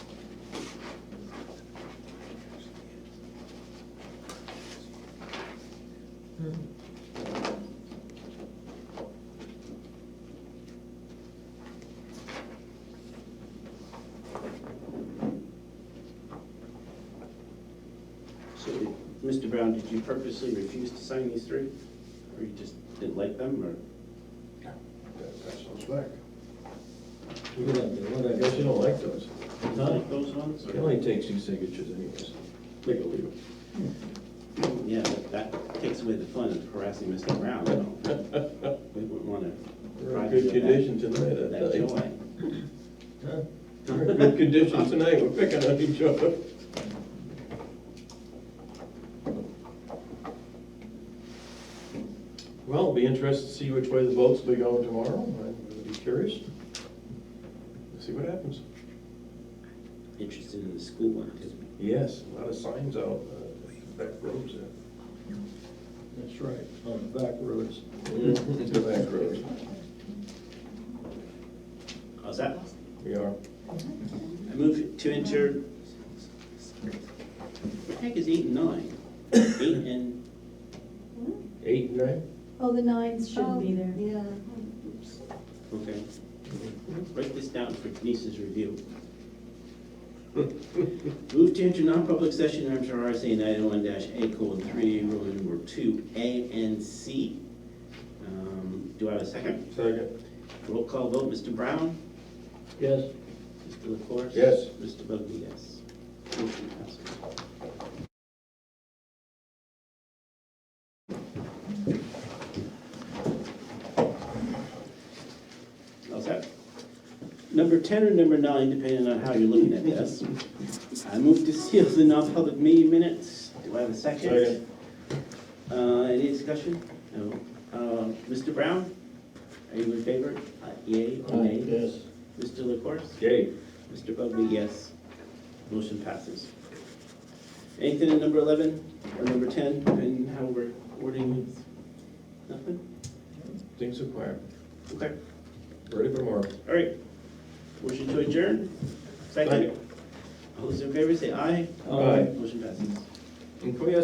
Mr. Brown, did you purposely refuse to sign these three? Or you just didn't like them, or? That sounds back. Look at that, look I at guess that. you don't like those. You like those ones? It or- only takes two signatures anyways. Make a leave. Yeah, but that takes away the fun of harassing Mr. Brown, you know? We wouldn't wanna. We're in good condition tonight, I That tell you. joy. Huh? We're in good condition tonight, we're picking on each other. Well, it'll be interesting to see which way the votes will go tomorrow, I'd be curious. See what happens. Interested in the school one, because Yes, a lot of signs out, uh, back roads there. That's right, on the back roads. To back roads, How's that? we are. I move to enter. What the heck is eight and nine? Eight and, Eight, nine? Oh, the nines Oh, shouldn't be there. Yeah. okay. Write this down for Denise's review. Move to enter non-public session under RSA nine oh one dash A colon three, Roman numeral two, A and C. Um, Do I have a second? Second. Roll call vote, Mr. Brown? Yes. Mr. LaFors? Yes. Mr. Bugby, yes. Motion passes. How's that? Number 10 or number 9, depending on how you're looking at this. I move to seal the non-public meeting minutes. Do I have a second? Second. Uh, Any discussion? No. Uh, Mr. Brown? Are you in favor? Uh, Yea or nay? Yes. Mr. LaCourse? Yay. Mr. Bugby, yes. Motion passes. Anything in number 11 or number 10, and how we're ordering this? Nothing? Things are quiet. Okay, Ready for more. all right. Motion to adjourn? Second? Second. All those in favor say aye. Aye. Motion passes. And can we ask